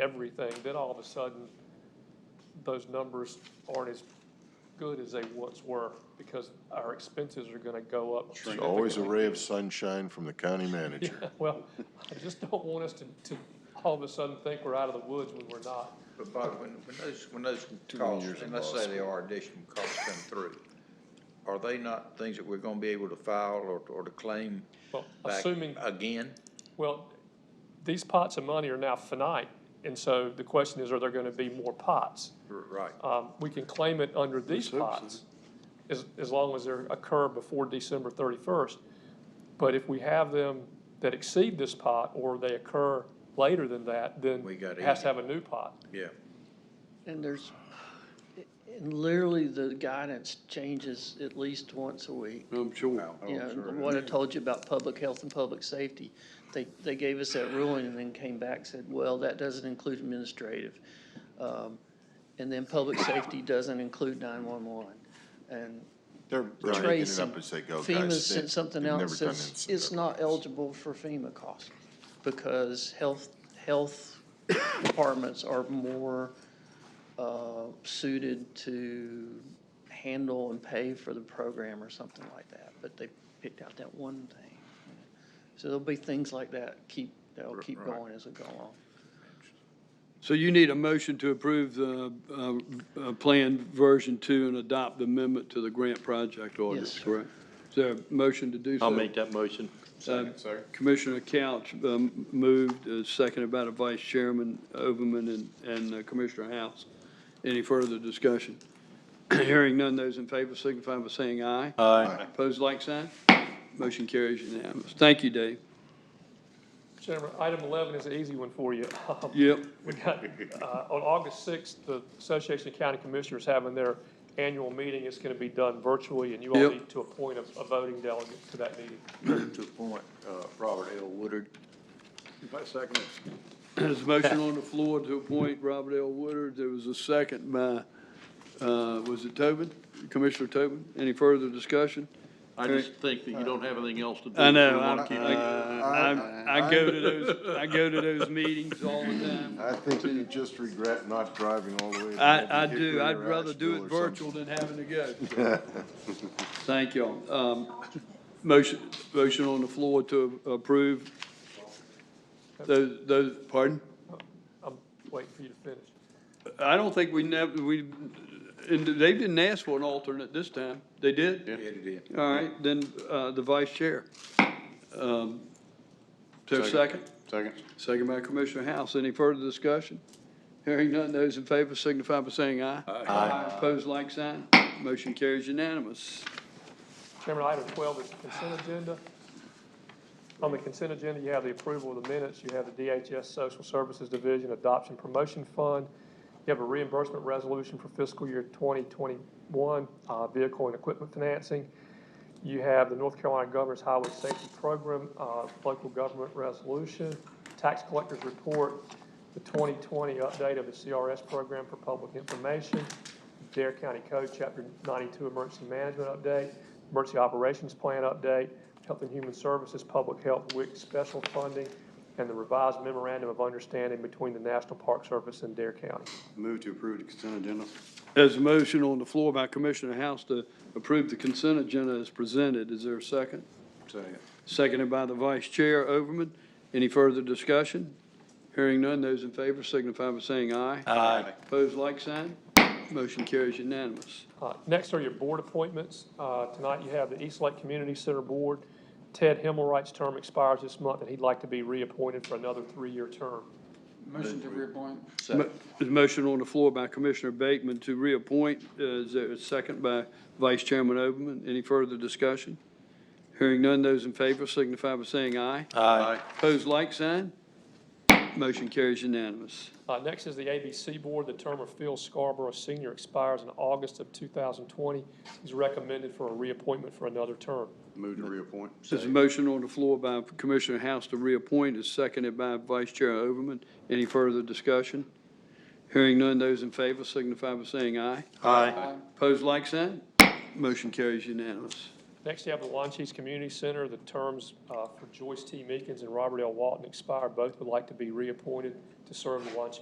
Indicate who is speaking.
Speaker 1: everything, then all of a sudden, those numbers aren't as good as they once were because our expenses are gonna go up.
Speaker 2: It's always a
Speaker 1: significantly.
Speaker 2: ray of sunshine from the county manager.
Speaker 1: Well, I just don't want us to, to all of a sudden think we're out of the woods when we're not.
Speaker 3: But Bob, when, when those, when those
Speaker 2: many
Speaker 3: costs,
Speaker 2: years
Speaker 3: and
Speaker 2: in
Speaker 3: let's
Speaker 2: law
Speaker 3: say they are additional costs come through, are they not things that we're gonna be able to file or, or to claim
Speaker 1: Well,
Speaker 3: back
Speaker 1: assuming,
Speaker 3: again?
Speaker 1: well, these pots of money are now finite, and so the question is, are there gonna be more pots?
Speaker 3: R- Right.
Speaker 1: Um, we can claim it under these
Speaker 2: hope so.
Speaker 1: pots, as, as long as they occur before December thirty-first. But if we have them that exceed this pot, or they occur later than that, then
Speaker 3: We
Speaker 1: it
Speaker 3: gotta
Speaker 1: has
Speaker 3: eat
Speaker 1: to have a new pot.
Speaker 3: Yeah.
Speaker 4: And there's, and literally the guidance changes at least once a week.
Speaker 5: I'm sure.
Speaker 4: You know, what I told you about public health and public safety, they, they gave us that ruling and then came back, and said, well, that doesn't include administrative. Um, And then public safety doesn't include nine-one-one. And
Speaker 2: They're they're making it
Speaker 4: tracing.
Speaker 2: up as they go, guys.
Speaker 4: FEMA
Speaker 2: They-
Speaker 4: sent something
Speaker 2: they've
Speaker 4: out,
Speaker 2: never
Speaker 4: that
Speaker 2: done
Speaker 4: says
Speaker 2: incident
Speaker 4: it's not
Speaker 2: reports.
Speaker 4: eligible for FEMA costs because health, health departments are more uh, suited to handle and pay for the program or something like that, but they picked out that one thing. So there'll be things like that, keep, that'll keep going as we go along.
Speaker 5: So you need a motion to approve the uh, uh, Plan Version Two and adopt the amendment to the grant project ordinance,
Speaker 4: sir.
Speaker 5: correct? Is there a motion to do so?
Speaker 6: I'll make that motion.
Speaker 5: Uh, Commissioner Couch um, moved, uh, seconded by the Vice Chairman Overman and- and uh, Commissioner House. Any further discussion? Hearing none, those in favor signify by saying aye.
Speaker 6: Aye.
Speaker 5: Opposed, like sign. Motion carries unanimous. Thank you, Dave.
Speaker 1: Gentlemen, item eleven is an easy one for you. Um,
Speaker 5: Yep.
Speaker 1: We got, uh, on August sixth, the Association of County Commissioners having their annual meeting. It's gonna be done virtually, and you all
Speaker 5: Yep.
Speaker 1: need to appoint a, a voting delegate to that meeting.
Speaker 7: to appoint uh, Robert L. Woodard. Second.
Speaker 5: There's a motion on the floor to appoint Robert L. Woodard. There was a second by, uh, was it Tobin? Commissioner Tobin? Any further discussion?
Speaker 6: I just think that you don't have anything else to do.
Speaker 5: I
Speaker 6: so
Speaker 5: know,
Speaker 6: we
Speaker 5: I'm-
Speaker 6: wanna keep it.
Speaker 5: I, I, I go to those, I go to those meetings all the time.
Speaker 2: I think you just regret not driving all the way. to
Speaker 5: I, I
Speaker 2: Hickory
Speaker 5: do,
Speaker 2: or
Speaker 5: I'd rather do
Speaker 2: Asheville
Speaker 5: it
Speaker 2: or something.
Speaker 5: virtual than having to go. Thank y'all. Um, motion, motion on the floor to approve those, those, pardon?
Speaker 1: I'm waiting for you to finish.
Speaker 5: I don't think we never, we, and they didn't ask for an alternate this time. They did?
Speaker 3: Yeah, it is.
Speaker 5: All right, then, uh, the vice chair. Um, Is there a second?
Speaker 7: Second.
Speaker 5: Second by Commissioner House. Any further discussion? Hearing none, those in favor signify by saying aye. Aye. Opposed, like sign. Motion carries unanimous.
Speaker 1: Chairman, item twelve is the consent agenda. On the consent agenda, you have the approval of the minutes, you have the DHS Social Services Division Adoption Promotion Fund, you have a reimbursement resolution for fiscal year twenty twenty-one, uh, vehicle and equipment financing. You have the North Carolina Governor's Highway Safety Program, uh, local government resolution, tax collector's report, the twenty twenty update of the CRS program for public information, Dare County Code, Chapter ninety-two, emergency management update, emergency operations plan update, health and human services, public health, WIC special funding, and the revised memorandum of understanding between the National Park Service and Dare County.
Speaker 7: Move to approve the consent agenda.
Speaker 5: There's a motion on the floor by Commissioner House to approve the consent agenda as presented. Is there a second?
Speaker 7: Second.
Speaker 5: Seconded by the Vice Chair, Overman. Any further discussion? Hearing none, those in favor signify by saying aye.
Speaker 6: Aye.
Speaker 5: Opposed, like sign. Motion carries unanimous.
Speaker 1: Uh, Next are your board appointments. Uh, Tonight, you have the East Lake Community Center Board. Ted Himmelwright's term expires this month, and he'd like to be reappointed for another three-year term.
Speaker 8: Motion to reappoint.
Speaker 5: Mo- There's a motion on the floor by Commissioner Bateman to reappoint. Uh, Is there a second by Vice Chairman Overman? Any further discussion? Hearing none, those in favor signify by saying aye.
Speaker 6: Aye.
Speaker 5: Opposed, like sign. Motion carries unanimous.
Speaker 1: Uh, next is the ABC Board. The term of Phil Scarborough Senior expires in August of two thousand twenty. He's recommended for a reappointment for another term.
Speaker 7: Move to reappoint.
Speaker 5: There's a motion on the floor by Commissioner House to reappoint, is seconded by Vice Chair Overman. Any further discussion? Hearing none, those in favor signify by saying aye.
Speaker 6: Aye.
Speaker 5: Opposed, like sign. Motion carries unanimous.
Speaker 1: Next, you have the Launchies Community Center. The terms uh, for Joyce T. Meekins and Robert L. Walton expire. Both would like to be reappointed to serve the Launchies